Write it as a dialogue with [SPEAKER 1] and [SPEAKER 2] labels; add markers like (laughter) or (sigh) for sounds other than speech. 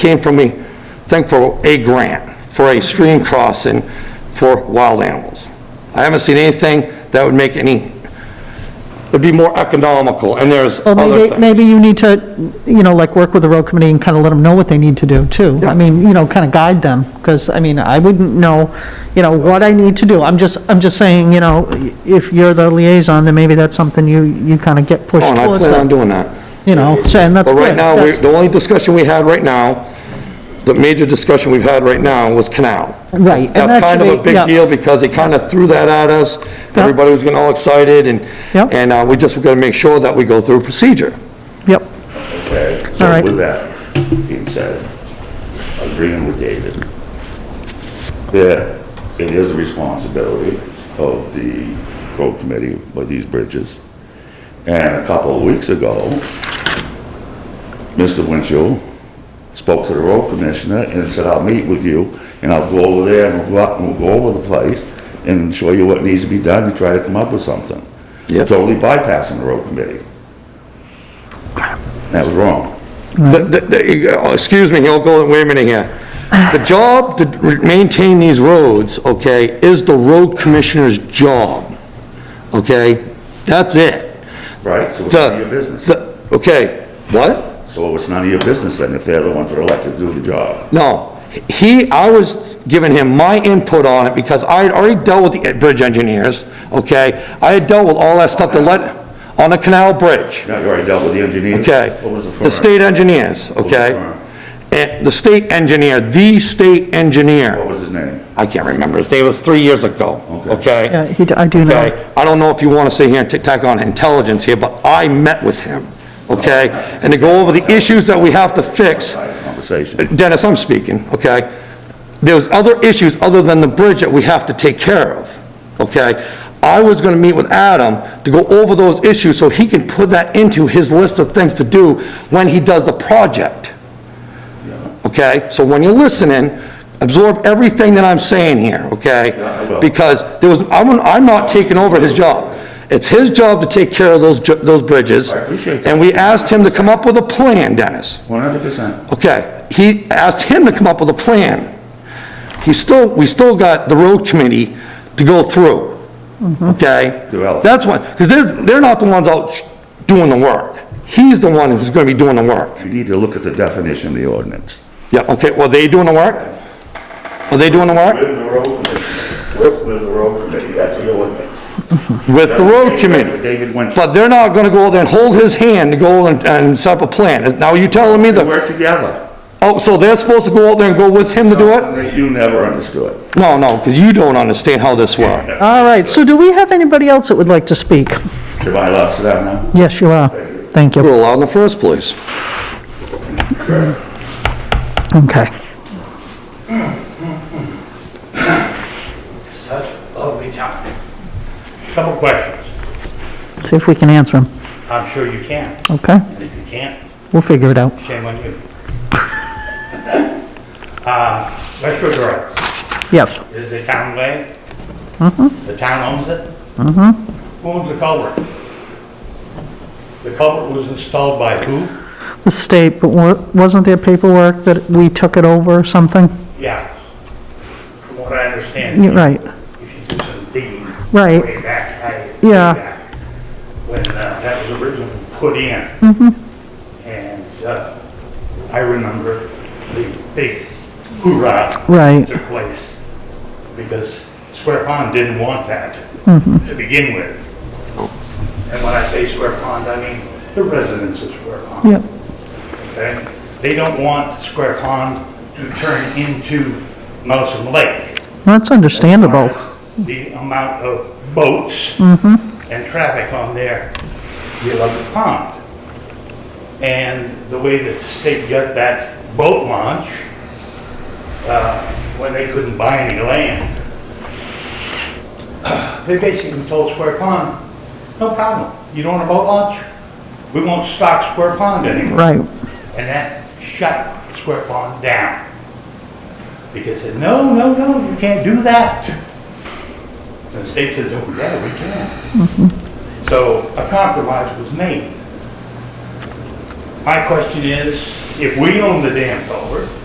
[SPEAKER 1] came from a thing for a grant, for a stream crossing for wild animals. I haven't seen anything that would make any, it'd be more economical, and there's
[SPEAKER 2] Well,
[SPEAKER 1] other
[SPEAKER 2] maybe,
[SPEAKER 1] things.
[SPEAKER 2] maybe you need to, you know, like, work with the road committee and kind of let them know what they need to do, too. I mean, you know, kind of guide them, because, I mean, I wouldn't know, you know, what I need to do. I'm just, I'm just saying, you know, if you're the liaison, then maybe that's something you, you kind of get pushed
[SPEAKER 1] Oh, And I
[SPEAKER 2] towards
[SPEAKER 1] plan on
[SPEAKER 2] them,
[SPEAKER 1] doing that.
[SPEAKER 2] you know, saying that's
[SPEAKER 1] But
[SPEAKER 2] good.
[SPEAKER 1] right now, we-
[SPEAKER 2] that's-
[SPEAKER 1] the only discussion we had right now, the major discussion we've had right now was canal.
[SPEAKER 2] Right, and that
[SPEAKER 1] That's kind of
[SPEAKER 2] should
[SPEAKER 1] a
[SPEAKER 2] be-
[SPEAKER 1] big
[SPEAKER 2] yeah.
[SPEAKER 1] deal because they kind of threw that at us. Everybody was getting all excited and,
[SPEAKER 2] Yeah.
[SPEAKER 1] and uh, we just got to make sure that we go through procedure.
[SPEAKER 2] Yep,
[SPEAKER 3] Okay,
[SPEAKER 2] All
[SPEAKER 3] so
[SPEAKER 2] right.
[SPEAKER 3] with that being said, agreeing with David, that it is a responsibility of the road committee with these bridges. And a couple of weeks ago, Mr. Winchell spoke to the road commissioner and said, I'll meet with you and I'll go over there and we'll go up and we'll go over the place and show you what needs to be done and try to come up with something.
[SPEAKER 1] Yep.
[SPEAKER 3] Totally bypassing the road committee. That was wrong.
[SPEAKER 1] The- the- the- oh, Excuse me, he'll go, wait a minute here. The job to maintain these roads, okay, is the road commissioner's job, okay? That's it.
[SPEAKER 3] Right, so it's none of
[SPEAKER 1] The-
[SPEAKER 3] your business.
[SPEAKER 1] the- Okay, what?
[SPEAKER 3] So it's none of your business then if they're the ones that are elected to do the job.
[SPEAKER 1] No, he, I was giving him my input on it because I had already dealt with the bridge engineers, okay? I had dealt with all that stuff to let, on the canal bridge,
[SPEAKER 3] Now, you already dealt with the engineers.
[SPEAKER 1] okay?
[SPEAKER 3] What was the firm?
[SPEAKER 1] The state engineers,
[SPEAKER 3] was the
[SPEAKER 1] okay?
[SPEAKER 3] firm?
[SPEAKER 1] And the state engineer, the state
[SPEAKER 3] What
[SPEAKER 1] engineer,
[SPEAKER 3] was his name?
[SPEAKER 1] I can't remember his name, it was three years ago,
[SPEAKER 3] Okay.
[SPEAKER 2] yeah,
[SPEAKER 1] okay?
[SPEAKER 2] he d- I do know.
[SPEAKER 1] Okay, I don't know if you want to sit here and tack on intelligence here, but I met with him, okay? And to go over the issues that we have to fix.
[SPEAKER 3] Conversation.
[SPEAKER 1] Dennis, I'm speaking, okay? There's other issues other than the bridge that we have to take care of, okay? I was gonna meet with Adam to go over those issues so he can put that into his list of things to do when he does the project, okay? So when you're listening, absorb everything that I'm saying here,
[SPEAKER 3] Yeah, I
[SPEAKER 1] okay?
[SPEAKER 3] will.
[SPEAKER 1] Because there was, I'm, I'm not taking over his job. It's his job to take care of those, ju- those bridges.
[SPEAKER 3] I appreciate that.
[SPEAKER 1] And we asked him to come up with a plan, Dennis.
[SPEAKER 3] One hundred percent.
[SPEAKER 1] Okay, he asked him to come up with a plan. He still, we still got the road committee to go through, okay?
[SPEAKER 3] Develop.
[SPEAKER 1] That's one, because they're, they're not the ones out sh- doing the work. He's the one who's gonna be doing the work.
[SPEAKER 3] You need to look at the definition of the ordinance.
[SPEAKER 1] Yeah, okay, well, they doing the work? Are they doing the work?
[SPEAKER 3] the road committee. Work with the road committee, that's the ordinance.
[SPEAKER 1] With the road committee.
[SPEAKER 3] David Winchell.
[SPEAKER 1] But they're not gonna go there and hold his hand to go and, and set up a plan. Now, you telling me
[SPEAKER 3] They
[SPEAKER 1] that,
[SPEAKER 3] work together.
[SPEAKER 1] oh, so they're supposed to go out there and go with him to do it?
[SPEAKER 3] You never understood.
[SPEAKER 1] No, no, because you don't understand how this works.
[SPEAKER 2] All right, so do we have anybody else that would like to speak?
[SPEAKER 3] Am I allowed to that now?
[SPEAKER 2] Yes, you are. Thank
[SPEAKER 1] You
[SPEAKER 2] you.
[SPEAKER 1] were allowed in the first place.
[SPEAKER 2] Okay.
[SPEAKER 4] Such a lovely topic. Couple questions.
[SPEAKER 2] See if we can answer them.
[SPEAKER 4] I'm sure you can.
[SPEAKER 2] Okay?
[SPEAKER 4] And if you can't,
[SPEAKER 2] We'll figure it out.
[SPEAKER 4] shame on you. (laughs) Uh, Westwood Road
[SPEAKER 2] Yes.
[SPEAKER 4] is a town way.
[SPEAKER 2] Mm-hmm.
[SPEAKER 4] The town owns it. Who owns the culvert? The culvert was installed by who?
[SPEAKER 2] The state, but wa- wasn't there paperwork that we took it over or something?
[SPEAKER 4] Yeah. From what I understand.
[SPEAKER 2] You're Right.
[SPEAKER 4] If you do some digging.
[SPEAKER 2] Right.
[SPEAKER 4] Way back, I. way
[SPEAKER 2] Yeah.
[SPEAKER 4] back, When uh, that was originally put in.
[SPEAKER 2] Mm-hmm.
[SPEAKER 4] And uh, I remember the big hoorah.
[SPEAKER 2] Right.
[SPEAKER 4] Took place because Square Pond didn't want that
[SPEAKER 2] Mm-hmm.
[SPEAKER 4] to begin with. And when I say Square Pond, I mean the residents of Square Pond
[SPEAKER 2] Yep.
[SPEAKER 4] okay? They don't want Square Pond to turn into Nelson Lake.
[SPEAKER 2] That's understandable.
[SPEAKER 4] The amount of boats and traffic on there, you love the pond. And the way that the state got that boat launch, uh, when they couldn't buy any land, (clears throat) they basically told Square Pond, no problem, you don't want a boat launch? We won't stock Square Pond anymore
[SPEAKER 2] Right.
[SPEAKER 4] and that shut Square Pond down. Because they said, no, no, no, you can't do that. And the state says, oh, yeah, we can. So a compromise was made. My question is, if we own the damn culvert,